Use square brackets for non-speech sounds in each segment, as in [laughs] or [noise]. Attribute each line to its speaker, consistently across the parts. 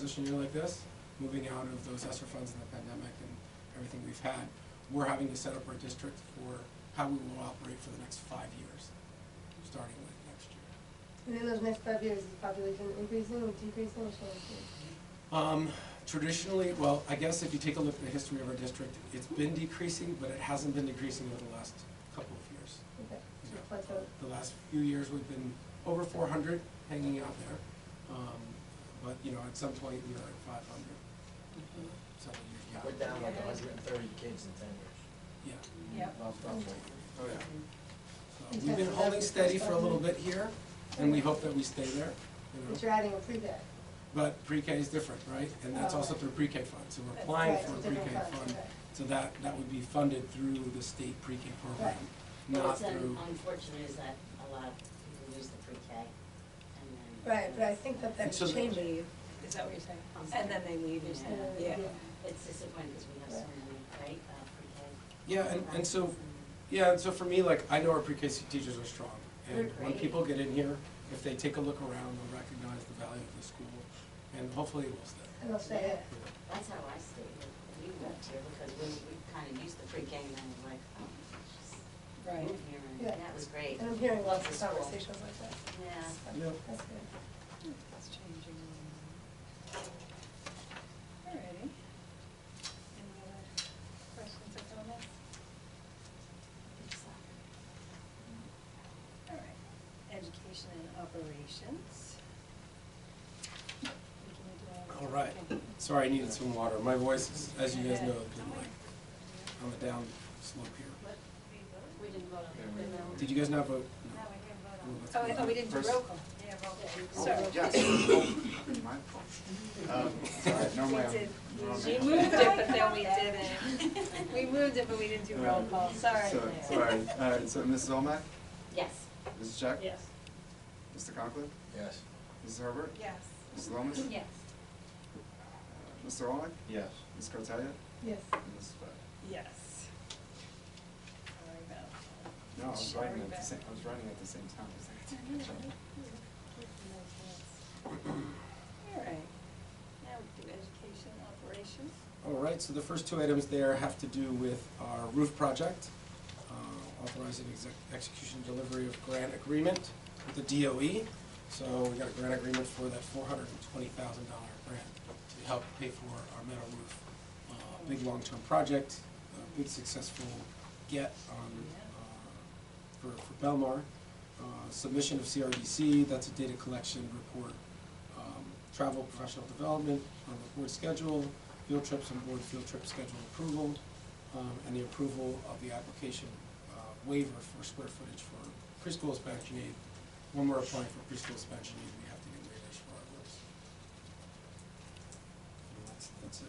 Speaker 1: Position year like this, moving out of those ESSER funds and the pandemic and everything we've had, we're having to set up our district for how we will operate for the next five years, starting with next year.
Speaker 2: And then those next five years, is population increasing or decreasing or shrinking?
Speaker 1: Um, Traditionally, well, I guess if you take a look at the history of our district, it's been decreasing, but it hasn't been decreasing over the last couple of years.
Speaker 2: Okay,
Speaker 1: you know.
Speaker 2: plateau.
Speaker 1: The last few years, we've been over four hundred hanging out there. Um, But, you know, at some point, we were at five hundred. Several years back.
Speaker 3: Mm-hmm. We're down like hundred and thirty kids in ten years.
Speaker 1: Yeah.
Speaker 4: Yep.
Speaker 3: Roughly.
Speaker 1: Oh, yeah. So We've been holding steady for a little bit here, and we hope that we stay there, you
Speaker 2: But
Speaker 1: know.
Speaker 2: you're adding a pre-bed.
Speaker 1: But pre-K is different, right? And that's also through pre-K fund, so we're applying
Speaker 2: Right,
Speaker 1: for a
Speaker 2: it's a different
Speaker 1: pre-K
Speaker 2: fund,
Speaker 1: fund.
Speaker 2: right.
Speaker 1: So that, that would be funded through the state pre-K program,
Speaker 2: Right.
Speaker 1: not
Speaker 5: What's
Speaker 1: through,
Speaker 5: un- unfortunate is that a lot of people lose the pre-K and then.
Speaker 2: Right, but I think that
Speaker 1: And
Speaker 2: that's
Speaker 1: so the-
Speaker 2: changing.
Speaker 4: leave, is that what you're saying?
Speaker 5: I'm sorry.
Speaker 4: And then they leave, you're saying,
Speaker 5: Yeah.
Speaker 4: yeah.
Speaker 5: It's disappointing because we have so many, right, uh, pre-K.
Speaker 1: yeah, and, and so,
Speaker 5: classes
Speaker 1: yeah, and so for me, like, I know our pre-K teachers are strong. And
Speaker 2: They're
Speaker 1: when
Speaker 2: great.
Speaker 1: people get in here, if they take a look around, they'll recognize the value of the school, and hopefully it will stay.
Speaker 2: And I'll say,
Speaker 1: you know.
Speaker 5: That's how I stayed when we moved here because we, we kind of used the pre-K and then we're like, oh, just
Speaker 4: Right.
Speaker 5: move here and
Speaker 2: Yeah.
Speaker 5: that was great.
Speaker 2: and I'm hearing lots of
Speaker 5: It's cool.
Speaker 2: conversations like that.
Speaker 5: Yeah.
Speaker 2: [laughs]
Speaker 1: Yeah.
Speaker 2: That's good.
Speaker 4: It's changing. Alrighty. Any other questions or comments?
Speaker 5: It's, uh,
Speaker 4: Alright, education and operations. We can do
Speaker 1: All right. Sorry, I needed some water. My voice is, as you guys know, has been like on the down slope here.
Speaker 5: We didn't vote on it.
Speaker 1: Did you guys not vote? No.
Speaker 4: Oh, I- oh, we didn't do roll call. Yeah, roll
Speaker 1: Oh,
Speaker 4: call. Sorry.
Speaker 6: Yes, it's my fault. Um, Sorry, normally
Speaker 4: We
Speaker 6: I'm.
Speaker 4: did.
Speaker 6: normally
Speaker 4: We
Speaker 6: I'm-
Speaker 5: [laughs]
Speaker 4: moved it, but then we didn't. We moved it, but we didn't do roll call, sorry.
Speaker 6: So, sorry, all right, Uh, so Mrs. Olmack,
Speaker 5: Yes.
Speaker 6: Mrs. Jack?
Speaker 5: Yes.
Speaker 6: Mr. Conklin,
Speaker 3: Yes.
Speaker 6: Mrs. Herbert,
Speaker 4: Yes.
Speaker 6: Mrs. Lomas,
Speaker 4: Yes.
Speaker 6: uh, Mr. Olmack,
Speaker 3: Yes.
Speaker 6: Ms. Cartelia,
Speaker 2: Yes.
Speaker 6: and Mrs. Beck.
Speaker 4: Yes. Sorry about that.
Speaker 6: No, I was
Speaker 4: Sorry
Speaker 6: writing at
Speaker 4: about
Speaker 6: the same, I was writing at the same time, I was like, I
Speaker 4: [laughs]
Speaker 6: didn't catch up.
Speaker 4: All right, now we do education operations.
Speaker 1: All right, so the first two items there have to do with our roof project, uh, authorizing exec- execution delivery of grant agreement with the DOE. So we got a grant agreement for that four hundred and twenty thousand dollar grant to help pay for our metal roof. Uh, Big long-term project, a big successful get on, uh, for for Belmar. Uh, Submission of CRDC, that's a data collection report um, travel, professional development, on the board schedule, field trips and board field trip schedule approval, um, and the approval of the application uh, waiver for square footage for preschool expansion aid. When we're applying for preschool expansion aid, we have to get waivers for our roofs. And That's, that's a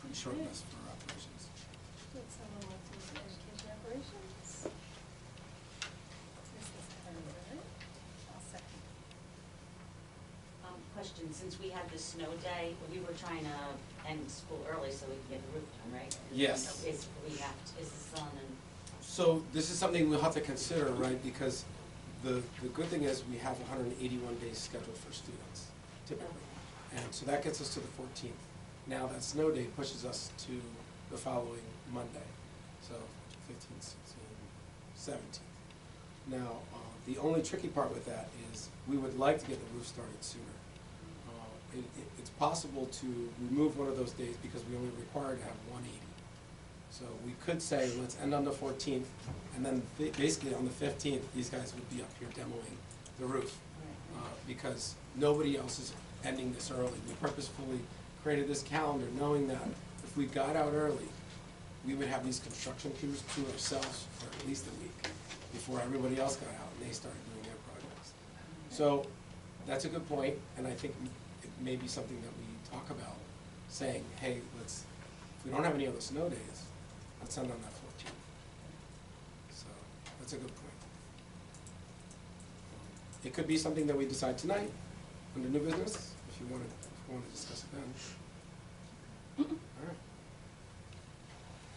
Speaker 1: pretty short list for operations.
Speaker 4: Would someone like to do education operations? Mrs. Herbert, I'll second.
Speaker 5: Um, question, since we had the snow day, we were trying to end school early so we could get the roof done, right?
Speaker 1: Yes.
Speaker 5: Is, we have, to- is this on an?
Speaker 1: So this is something we'll have to consider, right, because the, the good thing is we have hundred and eighty-one days scheduled for students typically. And so that gets us to the fourteenth. Now that snow day pushes us to the following Monday, so 15, 16, 17. Now, uh, the only tricky part with that is we would like to get the roof started sooner. Uh, It, it, it's possible to remove one of those days because we only require to have one eighty. So we could say, let's end on the fourteenth, and then ba- basically on the fifteenth, these guys would be up here demoing the roof. uh, Because nobody else is ending this early. We purposefully created this calendar knowing that if we got out early, we would have these construction crews to ourselves for at least a week before everybody else got out and they started doing their projects. So, that's a good point, and I think it may be something that we talk about, saying, hey, let's, if we don't have any other snow days, let's end on that fourteenth. So, that's a good point. Um, It could be something that we decide tonight, under new business, if you wanna, if you wanna discuss it then. Alright.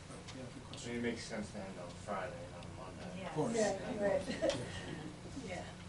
Speaker 1: But, yeah, good
Speaker 3: I mean,
Speaker 1: question.
Speaker 3: it makes sense to end on Friday, not on Monday.
Speaker 1: Of course.
Speaker 2: Yeah, right. [laughs]
Speaker 1: Yeah.
Speaker 4: Yeah.